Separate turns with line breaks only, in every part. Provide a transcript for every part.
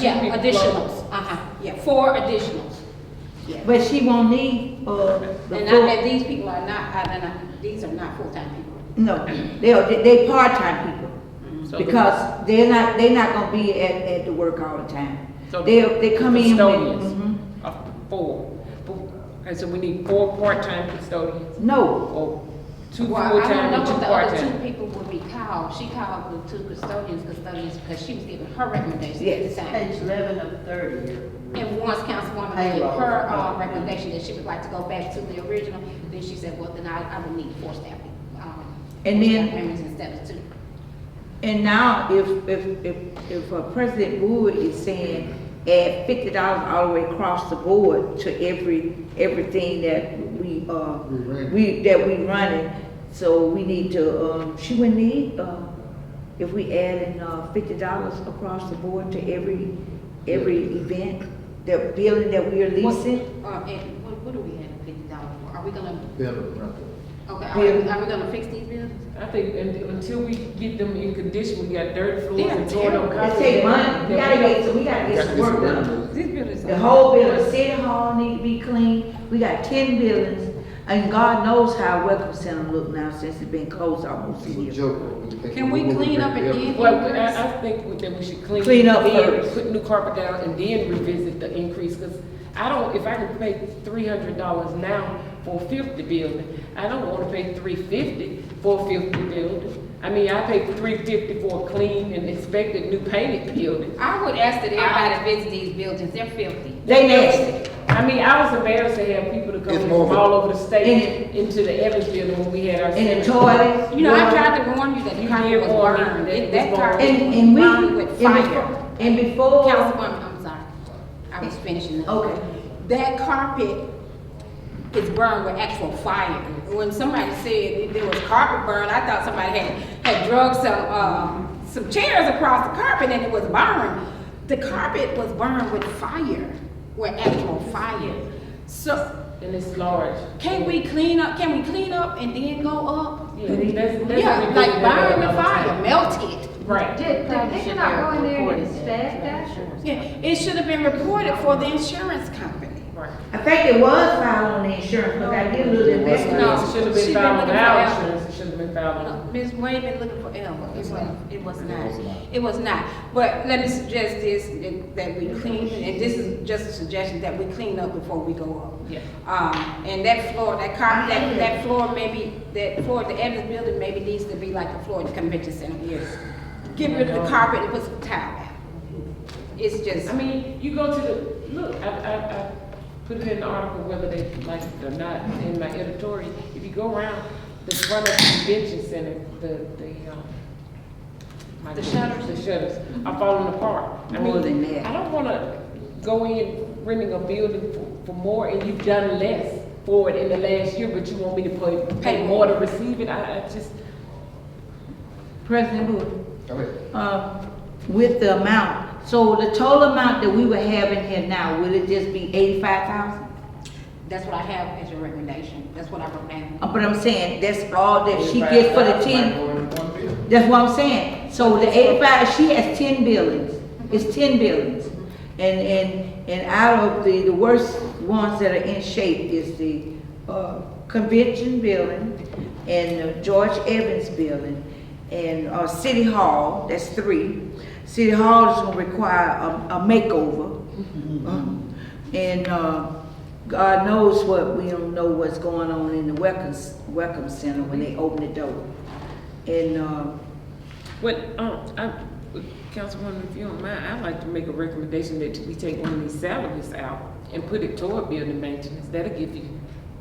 Yeah,
People
additionals, uh-huh, yeah, four additionals. Yeah.
But she won't need, uh, the
And I,
full,
and these people are not, I, and I, these are not full-time people.
no, they are, they- they part-time people.
So the-
Because they're not, they're not gonna be at, at the work all the time.
so
They, they come in. Mm-hmm. when-
Custodians of four, Four. and so we need four part-time custodians,
mhm. No,
or two
Well, I don't
full-time
know
and two
what the other two
part-time.
people would be called, she called the two custodians, custodians, because she was giving her recommendations at
Yes.
the time.
Page eleven of thirty.
And once Councilwoman gave
Payroll.
her, uh, recommendation that she would like to go back to the original, then she said, well, then I, I would need four staff, um,
And
four staff
then-
members instead of two.
and now if, if, if, if uh, President Wood is saying add fifty dollars all the way across the board to every, everything that we, uh,
We run.
we, that we running, so we need to, um, she would need, uh, if we adding, uh, fifty dollars across the board to every, every event, the building that we are leasing,
Uh, and what, what do we have fifty dollars for? Are we gonna,
better rental.
okay, are we, are we gonna fix these bills?
I think un- until we get them in condition, we got dirty floors
They're
and torn up.
terrible.
it
carpet.
take money, we gotta get, we gotta get some work done.
This building is.
The whole building, city hall need to be clean, we got ten buildings, and God knows how Welcome Center look now since it's been closed almost a
It's a
year.
joke.
Can we clean up and then-
Well, we- I, I think we- that we should clean.
Clean up
then
first.
Put new carpet down and then revisit the increase, because I don't, if I can pay three hundred dollars now for a fifty building, I don't wanna pay three fifty for a fifty building. I mean, I paid three fifty for a clean and expected new painted building.
I would ask that
Ah.
everybody visit these buildings, they're filthy.
They nasty,
I mean, I was embarrassed to have people to come
It's
in
more of
from
a-
all over the state
And-
into the Evans building when we had our.
and the
seminar.
toilets.
You know, I tried to warn you that the
You
carpet
did
was
warn me
burned,
that
It-
it
that
was burned.
carpet
And,
was
and we,
burned with
and
fire.
before, and before,
Councilwoman, I'm sorry, I was finishing up.
Okay.
That carpet is burned with actual fire. When somebody said there was carpet burn, I thought somebody had, had drug some, um, some chairs across the carpet and it was burned. The carpet was burned with fire, with actual fire. So,
And it's large.
Can we clean up, can we clean up and then go up?
Yeah, that's- that's
Yeah,
what we
like
did
burn the
another
fire,
time.
melt it.
Right.
Did, did they not go in there and inspect that?
Yeah, it should have been reported for the insurance company.
Right.
I think it was filed on the insurance, because I did a little
No.
investment.
It should have
she
been
been
filed on
looking for
our
that.
insurance, it should have been filed on.
Ms. Wade been looking for Elmer, it wasn't, it was
It was
not,
not.
it was not. But let me suggest this, that- that we clean, and this is just a suggestion, that we clean up before we go up.
Yeah.
Um, and that floor, that carpet, that, that floor maybe, that floor, at the Evans building maybe needs to be like the floor at the convention center. Yes. Get rid of the carpet and put some tile down. It's just.
I mean, you go to the, look, I, I, I put it in the article whether they like it or not, in my editorial. If you go around the front of the convention center, the, the, um, my
The
goodness,
shutters?
The shutters are falling apart. I
More than
mean,
that.
I don't wanna go in renting a building for, for more and you've done less for it in the last year, but you want me to pay, pay more to receive it? I, I just,
President Wood,
Okay,
uh, with the amount, so the total amount that we would have in here now, will it just be eighty-five thousand?
That's what I have as your recommendation, that's what I wrote down.
Uh, But I'm saying, that's all that she gets for the ten.
one bill.
That's what I'm saying. So the eighty-five, she has ten buildings. It's ten buildings. And, and, and out of the, the worst ones that are in shape is the, uh, convention building and the George Evans building and, uh, City Hall, that's three. City Hall is gonna require a, a makeover. And, uh, God knows what, we don't know what's going on in the Welcome, Welcome Center when they open the door. And, uh,
Well, um, I, Councilwoman, if you don't mind, I'd like to make a recommendation that we take one of these salaries out and put it toward building maintenance, that'll give you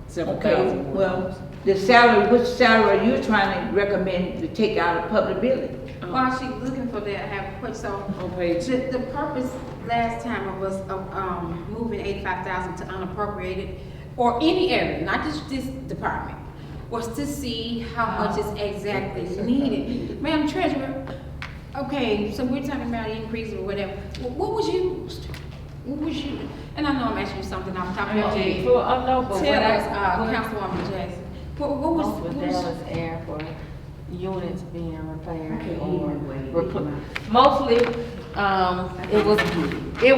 several
Okay,
thousand. more.
well, the salary, which salary are you trying to recommend to take out of public building?
Um,
While she's looking for that, I have a question, so
On page,
The, the purpose last time of us, of, um, moving eighty-five thousand to unappropriated, or any area, not just this department, was to see how much is exactly needed. Madam Treasurer, okay, so we're talking about increase or whatever, Wh- what was used? What was you, and I know I'm asking you something off the top of
Oh,
your
Okay,
head.
for, I know, but what
Tell us,
I,
uh,
what
Councilwoman Jackson, what, what was,
most
what
with
was?
Dallas Air for units being repaired
Okay,
or
anyway,
repl-
anyway.
Mostly,
um, it was, it